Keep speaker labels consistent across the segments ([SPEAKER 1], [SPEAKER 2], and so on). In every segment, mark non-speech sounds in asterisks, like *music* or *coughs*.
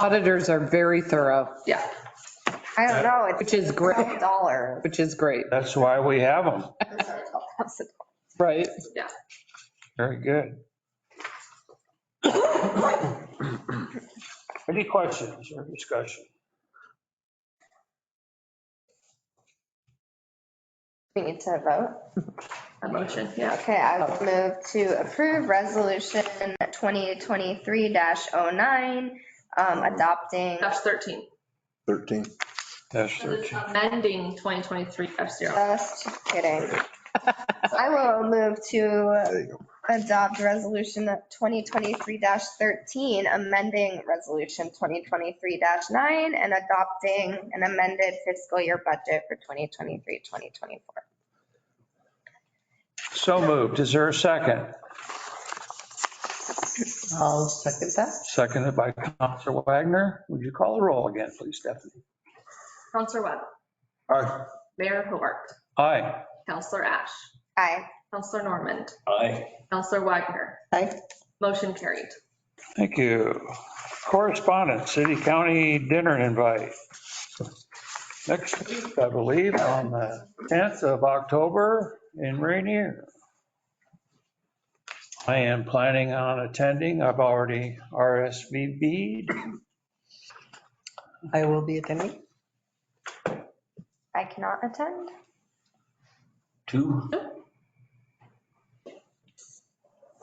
[SPEAKER 1] Auditors are very thorough,
[SPEAKER 2] Yeah,
[SPEAKER 3] I don't know, it's
[SPEAKER 1] which is
[SPEAKER 3] a
[SPEAKER 1] great,
[SPEAKER 3] dollar.
[SPEAKER 1] which is great,
[SPEAKER 4] That's why we have them.
[SPEAKER 1] right?
[SPEAKER 4] Very good. Any questions or discussion?
[SPEAKER 3] We need to vote.
[SPEAKER 2] a motion, yeah.
[SPEAKER 3] Okay, I will move to approve resolution 2023-09, um, adopting,
[SPEAKER 2] Dash 13,
[SPEAKER 5] 13.
[SPEAKER 4] That's
[SPEAKER 2] amending 2023 dash zero.
[SPEAKER 3] just kidding. I will move to
[SPEAKER 5] There you go.
[SPEAKER 3] adopt resolution 2023-13, amending resolution 2023-9 and adopting an amended fiscal year budget for 2023, 2024.
[SPEAKER 4] So moved. Is there a second?
[SPEAKER 1] I'll second that.
[SPEAKER 4] Seconded by Counselor Wagner. Would you call the roll again, please, Stephanie?
[SPEAKER 2] Counselor Webb,
[SPEAKER 5] Aye.
[SPEAKER 2] Mayor Hobart,
[SPEAKER 4] Aye.
[SPEAKER 2] Counselor Ash,
[SPEAKER 3] Aye.
[SPEAKER 2] Counselor Normand,
[SPEAKER 4] Aye.
[SPEAKER 2] Counselor Wagner.
[SPEAKER 1] Aye.
[SPEAKER 2] Motion carried.
[SPEAKER 4] Thank you. Correspondence, city county dinner invite. Next week, I believe, on the 10th of October in Rainier. I am planning on attending. I've already RSVP'd.
[SPEAKER 1] I will be attending.
[SPEAKER 3] I cannot attend.
[SPEAKER 4] Two.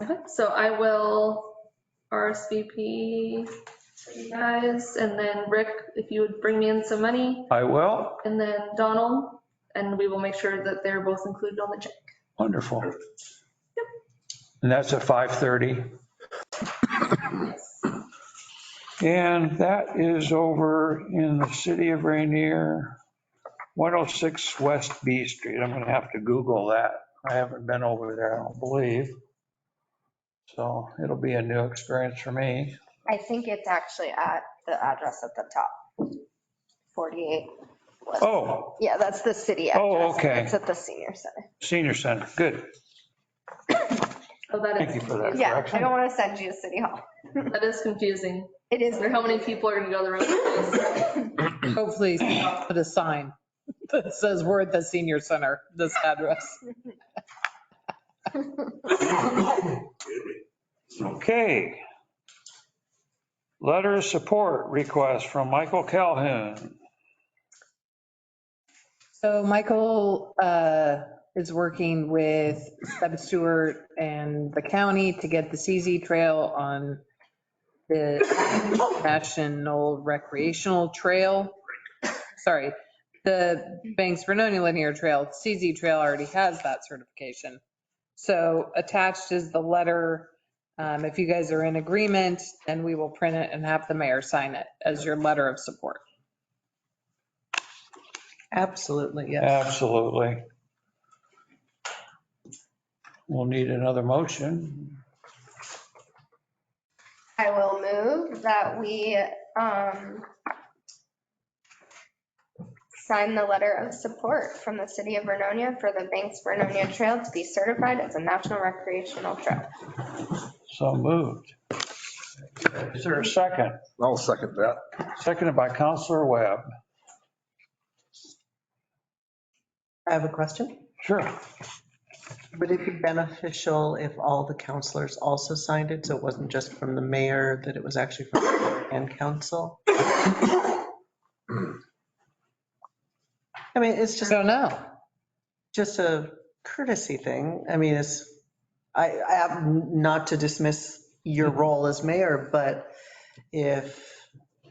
[SPEAKER 2] Okay, So I will RSVP for you guys, and then Rick, if you would bring me in some money,
[SPEAKER 4] I will.
[SPEAKER 2] and then Donald, and we will make sure that they're both included on the check.
[SPEAKER 4] Wonderful. And that's at 5:30. And that is over in the city of Rainier, 106 West B Street. I'm going to have to Google that. I haven't been over there, I don't believe. So it'll be a new experience for me.
[SPEAKER 3] I think it's actually at the address at the top. 48. was-
[SPEAKER 4] Oh,
[SPEAKER 3] Yeah, that's the city address.
[SPEAKER 4] Oh, okay.
[SPEAKER 3] It's at the senior center.
[SPEAKER 4] senior center, good.
[SPEAKER 2] Oh, that
[SPEAKER 4] Thank
[SPEAKER 2] is,
[SPEAKER 4] you for that
[SPEAKER 3] Yeah, I don't
[SPEAKER 4] correction.
[SPEAKER 3] want to send you to city hall.
[SPEAKER 2] that is confusing.
[SPEAKER 3] It is.
[SPEAKER 2] Is there how many people are gonna go to the road?
[SPEAKER 1] Hopefully, I'll put a sign that says we're at the senior center, this address.
[SPEAKER 4] Okay. Letter of support request from Michael Calhoun.
[SPEAKER 1] So Michael uh, is working with Seb Stewart and the county to get the CZ Trail on the National Recreational Trail. Sorry, the Banks Benoni Linear Trail, CZ Trail already has that certification. So attached is the letter. Um, If you guys are in agreement, then we will print it and have the mayor sign it as your letter of support.
[SPEAKER 6] Absolutely, yes.
[SPEAKER 4] Absolutely. We'll need another motion.
[SPEAKER 3] I will move that we um, sign the letter of support from the city of Vernonia for the Banks Vernonia Trail to be certified as a national recreational trail.
[SPEAKER 4] So moved. Is there a second?
[SPEAKER 5] I'll second that.
[SPEAKER 4] Seconded by Counselor Webb.
[SPEAKER 6] I have a question.
[SPEAKER 4] Sure.
[SPEAKER 6] Would it be beneficial if all the counselors also signed it? So it wasn't just from the mayor, that it was actually from the mayor and council? *coughs* I mean, it's
[SPEAKER 1] I
[SPEAKER 6] just,
[SPEAKER 1] don't know.
[SPEAKER 6] just a courtesy thing. I mean, it's, I, I have not to dismiss your role as mayor, but if,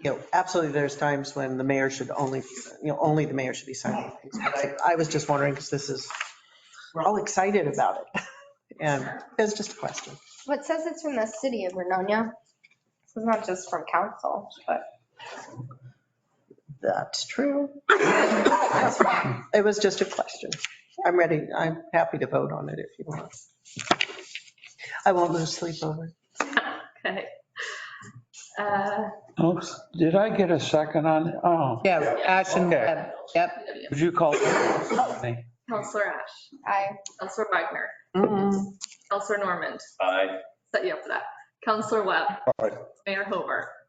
[SPEAKER 6] you know, absolutely, there's times when the mayor should only, you know, only the mayor should be signing things. But I I was just wondering, because this is, we're all excited about it. *laughs* And it's just a question.
[SPEAKER 3] What says it's from the city of Vernonia? This is not just from council, but.
[SPEAKER 6] That's true. It was just a question. I'm ready. I'm happy to vote on it if you want. I won't lose sleep over it.
[SPEAKER 2] Okay. Uh,
[SPEAKER 4] Oops, Did I get a second on, oh,
[SPEAKER 1] Yeah, Ash and
[SPEAKER 4] Okay.
[SPEAKER 1] Webb. Yep.
[SPEAKER 4] would you call? Aye.
[SPEAKER 2] Counselor Ash,
[SPEAKER 3] I,
[SPEAKER 2] Counselor Wagner,
[SPEAKER 6] Mm,
[SPEAKER 2] Counselor Normand. Aye. Set you up for that. Counselor Webb.
[SPEAKER 5] Aye.
[SPEAKER 2] Mayor Hobart.